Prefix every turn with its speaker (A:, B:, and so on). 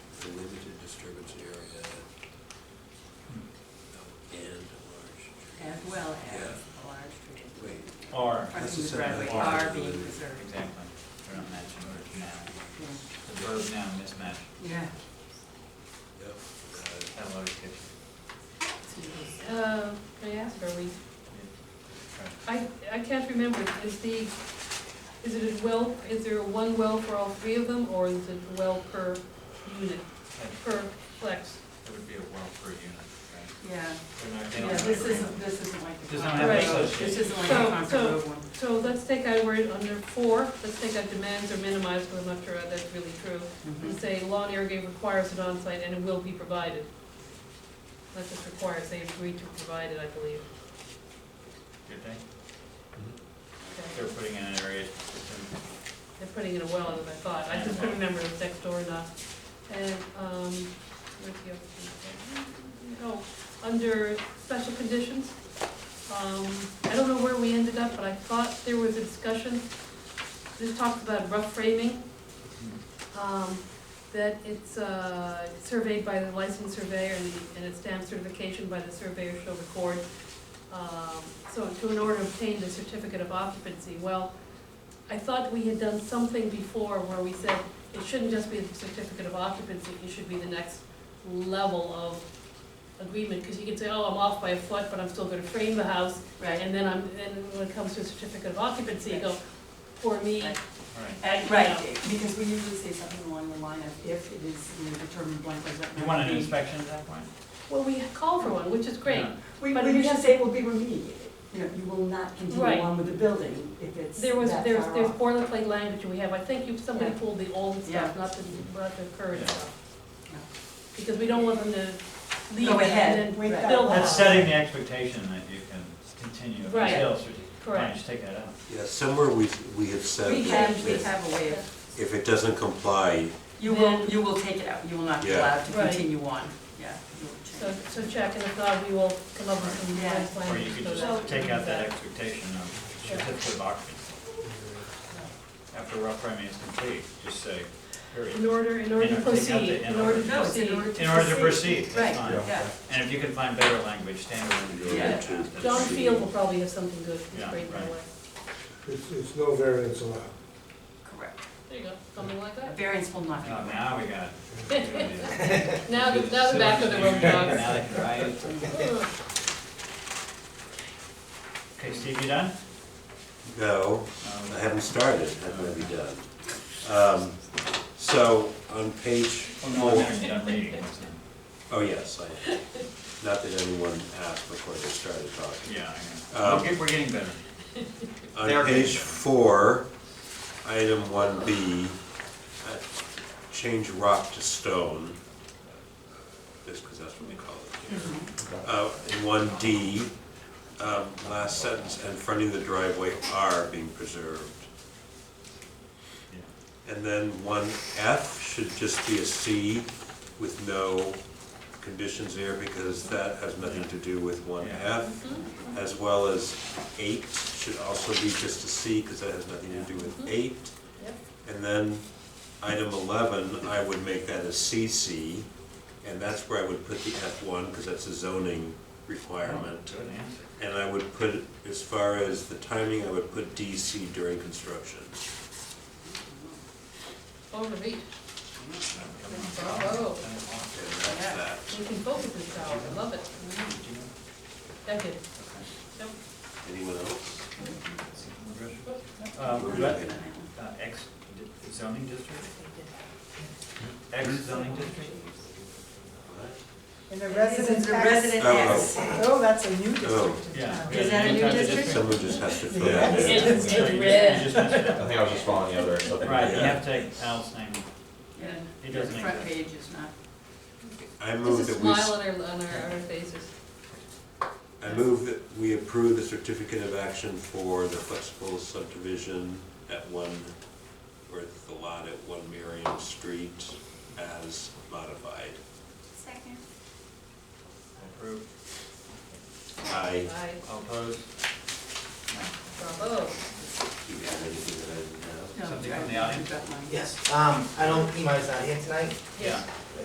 A: Town Mother's Kitchen.
B: Uh, may I ask, are we, I, I can't remember, is the, is it a well, is there one well for all three of them, or is it a well per unit,
A: It
B: per flex?
A: would be a well per unit, right?
C: Yeah,
A: They're not- they
C: yeah,
A: don't have
C: this
A: a-
C: isn't, this isn't like the.
A: Does not
B: have
C: Concord-
A: association.
C: This isn't like
B: So-
C: the Concord
B: so-
C: Road one.
B: So let's take out word under four, let's take out demands or minimize, because I'm not sure that's really true, and say lawn irrigate requires an onsite and it will be provided. Not just requires, they agreed to provide it, I believe,
A: Good thing.
B: okay?
A: They're putting in an area system.
B: They're putting in a well, as I thought, I just couldn't remember if it's next door or not. And, um, where's the other thing? Oh, under special conditions, um, I don't know where we ended up, but I thought there was a discussion, this talks about rough framing, um, that it's, uh, surveyed by the licensed surveyor and, and it's stamped certification by the surveyor shall record. Um, so to in order to obtain the certificate of occupancy, well, I thought we had done something before where we said it shouldn't just be the certificate of occupancy, it should be the next level of agreement, because you can say, oh, I'm off by a foot, but I'm still gonna frame the house,
C: Right,
B: and then I'm, and when it comes to a certificate of occupancy, you go, for me,
C: Right.
A: All right.
C: and, right, because we usually say something along the line of if it is, you know, determined blank by blank.
A: You want an inspection at that point?
B: well, we call for one, which is great.
A: Yeah.
C: We,
B: but
C: we
B: we
C: usually
B: have-
C: say it will be remediated, you know, you will not continue
B: Right.
C: on with the building if it's that
B: There was, there's,
C: far
B: there's
C: off.
B: boilerplate language we have, I think you, somebody
C: Yeah.
B: pulled the old
C: Yeah.
B: stuff, not the, not the current
A: Yeah.
B: stuff.
C: No.
B: Because we don't want them to leave
C: Go
B: and
C: ahead.
B: then
C: We've
B: build
C: got-
B: on
A: That's
B: it.
A: setting the expectation that you can continue until
B: Right.
A: certificate. Why
B: Correct.
A: don't you take that out?
D: Yeah, somewhere we, we have said
C: We
D: that
C: have, we have a way of,
D: if it doesn't comply,
C: you will, you will take it out, you will not be
D: Yeah.
C: allowed to
B: Right.
C: continue on, yeah. you will change.
B: So, so check, and if not, we will come up with some
C: Yeah.
B: plans.
A: Or you could just take out that expectation of certificate of occupancy. After rough framing is complete, just say,
B: In
A: period.
B: order, in order
A: You know,
B: to
A: take out
B: proceed,
A: the in
B: in order to
A: order.
C: No, it's
B: proceed.
C: in order to.
A: In order to proceed, that's
C: Right,
A: fine.
C: yeah.
A: And if you can find better language, standard.
C: Yeah.
B: John Field will probably have something good, he's
A: Yeah,
B: great in that
A: right.
B: way.
E: It's, it's no variance allowed.
C: Correct.
B: There you go, something like
C: A
B: that.
C: variance will not be.
A: Oh, now we got.
B: Now, the- now the back of the road
A: Now
B: dogs.
A: they can ride.
B: Ugh.
A: Okay, Steve, you done?
D: no, I
A: Um,
D: haven't started, that might be done. Um, So, on page
A: Oh, no, I'm
D: four,
A: not done reading.
D: oh yes, I, not that anyone asked before they started talking.
A: Yeah,
D: Uh,
A: I know. We're get- We're getting better. They're
D: On
A: getting
D: page
A: better.
D: four, item one B, uh, change rock to stone, just because that's what we call it here. Uh, in one D, um, last sentence, and fronting the driveway are being preserved. And then one F should just be a C with no conditions there, because that has nothing to do with one
A: Yeah.
D: F. As well as eight should also be just a C, because that has nothing to do with eight.
B: Yep.
D: And then item eleven, I would make that a CC, and that's where I would put the F one, because that's a zoning requirement.
A: Good answer.
D: And I would put, as far as the timing, I would put DC during construction.
B: Overbeat,
A: Bravo.
B: Bravo.
D: And that's
C: Yeah.
D: that.
B: we can focus this hour, I love it. That good. Mm-hmm. Yep.
D: Anyone else?
A: Uh,
D: We're
A: let-
D: looking.
A: uh, X di- zoning district? X zoning district?
F: In the
C: Residents,
F: residence
C: the
F: tax.
C: resident
D: Oh.
C: has.
F: Oh, that's a new district in
A: Yeah.
F: town.
C: Is that a new
A: Sometimes it
C: district?
A: just-
D: Someone just has to fill
F: Yeah.
D: that in.
B: It's-
A: Yeah,
B: it's
A: you just-
B: red.
A: you just missed it.
G: I think I was just following the other. so-
A: Right, you have to take Al's name.
C: Yeah.
A: It doesn't
C: The front
A: exist.
C: page is not.
D: I move
B: There's a
D: that we,
B: smile
D: s-
B: on our, on our our faces.
D: I move that we approve the certificate of action for the flexible subdivision at one, or the lot at one Miriam Street as modified.
C: Second.
A: Approved.
D: I,
B: Aye,
A: All opposed? No.
B: bravo.
D: do you have anything that I didn't have?
C: No,
A: Something
C: I-
A: from the audience?
C: I've got mine.
H: Yes, um, I don't, Imai's not here tonight,
B: Yes.
A: Yeah.